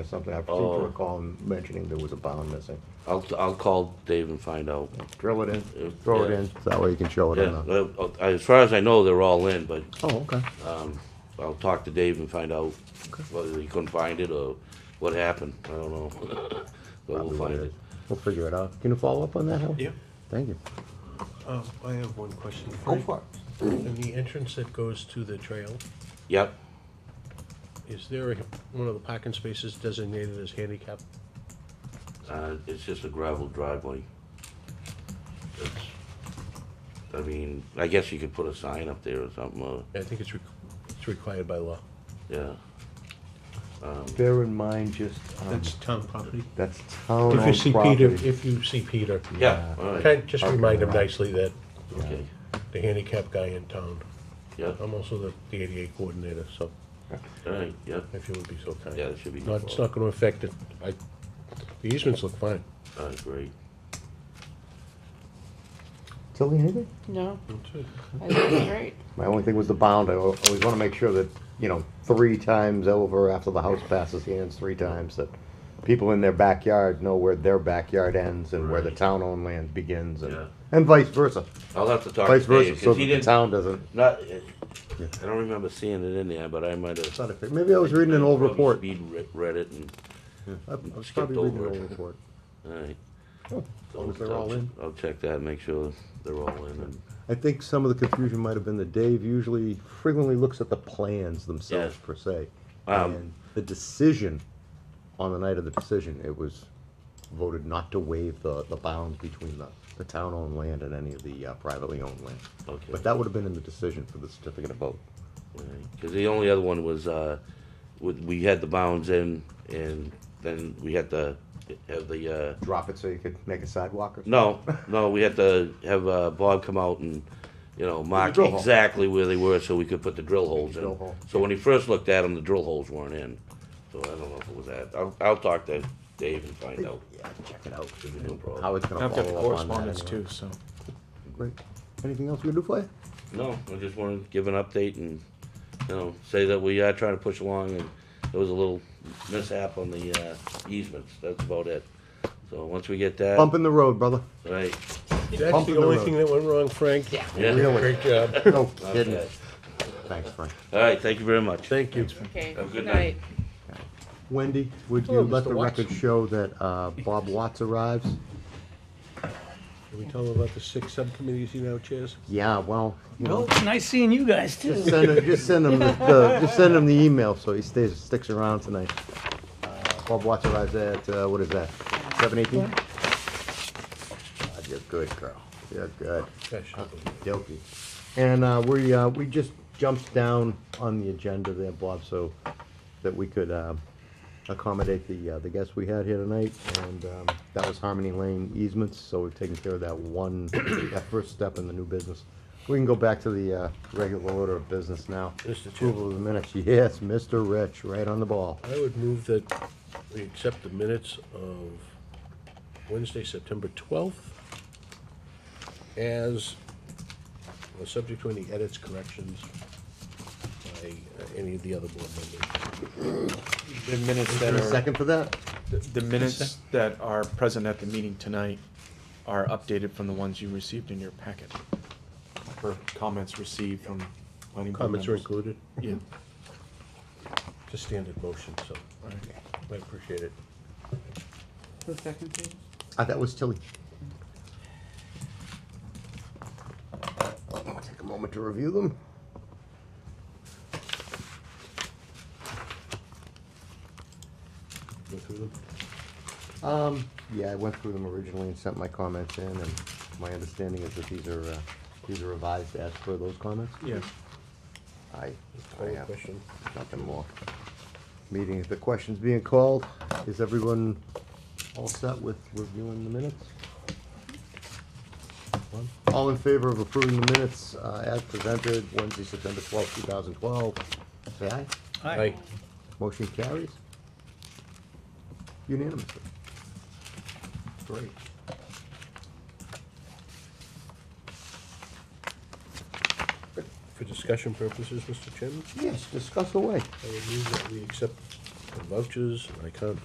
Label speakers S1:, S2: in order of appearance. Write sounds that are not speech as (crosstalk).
S1: or something. I seem
S2: Oh.
S1: to recall him mentioning there was a bond missing.
S2: I'll, I'll call Dave and find out.
S1: Drill it in,
S2: If-
S1: throw it
S2: yeah.
S1: in, so that way you can show it
S2: Yeah,
S1: on the.
S2: uh, uh, as far as I know, they're all in, but
S1: Oh, okay.
S2: um, I'll talk to Dave and find out
S1: Okay.
S2: whether he couldn't find it or what happened. I
S1: (laughs)
S2: don't know. But
S1: Probably
S2: we'll
S1: what
S2: find it.
S1: is. We'll figure it out. Can you follow up on that, Howard?
S3: Yeah,
S1: Thank you.
S3: um, I have one question.
S1: it.
S3: In the entrance that goes to the trail,
S2: Yep,
S3: is there a- one of the parking spaces designated as handicap?
S2: uh, it's just a gravel driveway. It's, I mean, I guess you could put a sign up there or something, or,
S3: I think it's, re- it's required by law.
S2: yeah.
S1: Bear in mind, just, um,
S3: That's town property.
S1: that's
S3: If you
S1: town-owned
S3: see Peter,
S1: property.
S3: if you see Peter,
S2: Yeah, all right,
S3: okay, just remind him nicely that
S2: okay,
S3: the handicap guy in town.
S2: yeah, all
S3: I'm also the the ADA coordinator, so
S2: right, yeah,
S3: if you would be so kind.
S2: yeah, it should be.
S3: Not, it's not gonna affect it. I, the easements look fine.
S2: All right, great.
S1: Tilly, anything?
S4: No, I think it's great.
S1: My only thing was the bound. I al- always wanna make sure that, you know, three times over after the house passes hands three times, that people in their backyard know where their backyard ends and where the
S2: Right.
S1: town-owned land begins and,
S2: Yeah.
S1: and vice versa.
S2: I'll have to talk to
S1: Vice versa,
S2: Dave,
S1: so
S2: because
S1: that
S2: he
S1: the
S2: didn't,
S1: town doesn't.
S2: not, eh, I don't remember seeing it in there, but I might have.
S1: Maybe I was reading an old
S2: Probably
S1: report.
S2: speed re- read it and,
S1: I I was
S2: Skipped
S1: probably reading an
S2: over it.
S1: old report.
S2: all right.
S1: Oh, as long as they're all in.
S2: I'll check that, and make sure they're all in and,
S1: I think some of the confusion might have been that Dave usually frequently looks at the plans themselves
S2: Yeah.
S1: per se.
S2: Um,
S1: And the decision, on the night of the decision, it was voted not to waive the, the bounds between the, the town-owned land and any of the uh, privately owned land.
S2: okay.
S1: But that would have been in the decision for the certificate of vote.
S2: Because the only other one was, uh, with- we had the bounds in and then we had to have the, uh,
S1: Drop it so you could make a sidewalk or?
S2: no, no, we had to have uh, Bob come out and, you know, mark
S1: drill hole.
S2: exactly where they were so we could put the drill holes
S1: drill
S2: in.
S1: hole.
S2: So when he first looked at them, the drill holes weren't in. So I don't know if it was that. I'll, I'll talk to Dave and find out.
S1: Yeah, check it out.
S2: No problem.
S1: How it's gonna
S5: I've got the
S1: follow up on that
S5: correspondence
S1: anyway.
S5: too, so.
S1: Great. Anything else we can do for you?
S2: No, I just wanted to give an update and, you know, say that we are trying to push along and there was a little mishap on the uh, easements. That's about it. So once we get that,
S1: Bump in the road, brother.
S2: right?
S3: That's
S1: Bump in
S3: the
S1: the
S3: only
S1: road.
S3: thing that went wrong, Frank.
S2: Yeah.
S1: Really?
S3: Great job.
S1: No kidding.
S2: Okay.
S1: Thanks, Frank.
S2: All right, thank you very much.
S3: Thank you.
S4: Okay.
S2: Have a good night.
S1: Wendy, would you
S3: Hello,
S1: let
S3: Mr.
S1: the
S3: Watts.
S1: record show that uh, Bob Watts arrives?
S3: Can we tell them about the six subcommittees you now chairs?
S1: Yeah, well, you know,
S5: Well, it's nice seeing you guys too.
S1: just send him, just send him the- the, just send him the email so he stays, sticks around tonight. Uh, Bob Watts arrives at, uh, what is that, seven eighteen? God, you're good, girl. You're good.
S3: Gosh,
S1: Guilty. And uh, we, uh, we just jumped down on the agenda there, Bob, so that we could um, accommodate the, uh, the guests we had here tonight. And um, that was Harmony Lane easements, so we've taken care of that one, (coughs) that first step in the new business. We can go back to the uh, regular order of business now.
S3: Mr. Chair.
S1: Approval of the minutes, yes, Mr. Rich, right on the ball.
S3: I would move that we accept the minutes of Wednesday, September 12th as, well, subject to any edits, corrections by uh, any of the other board members.
S5: The minutes
S1: Is
S5: that
S1: there a
S5: are,
S1: second for that?
S5: the minutes that are present at the meeting tonight are updated from the ones you received in your packet. For comments received from planning board
S3: Comments are
S5: members.
S3: included.
S5: Yeah.
S3: It's a standard motion, so I appreciate it.
S4: Who's second, please?
S1: Uh, that was Tilly. I'll Take a moment to review them.
S3: Go through them.
S1: Um, yeah, I went through them originally and sent my comments in, and my understanding is that these are, uh, these are revised as per those comments.
S5: Yeah,
S1: I, I
S3: Call the
S1: have
S3: question.
S1: nothing more. Meeting, the question's being called. Is everyone all set with reviewing the minutes? All in favor of approving the minutes, uh, as presented, Wednesday, September twelfth, two thousand twelve? Say aye.
S3: Aye.
S1: Motion carries. Unanimously. Great.
S3: For discussion purposes, Mr. Chairman,
S1: Yes, discuss away.
S3: I would move that we accept the vouchers, I can't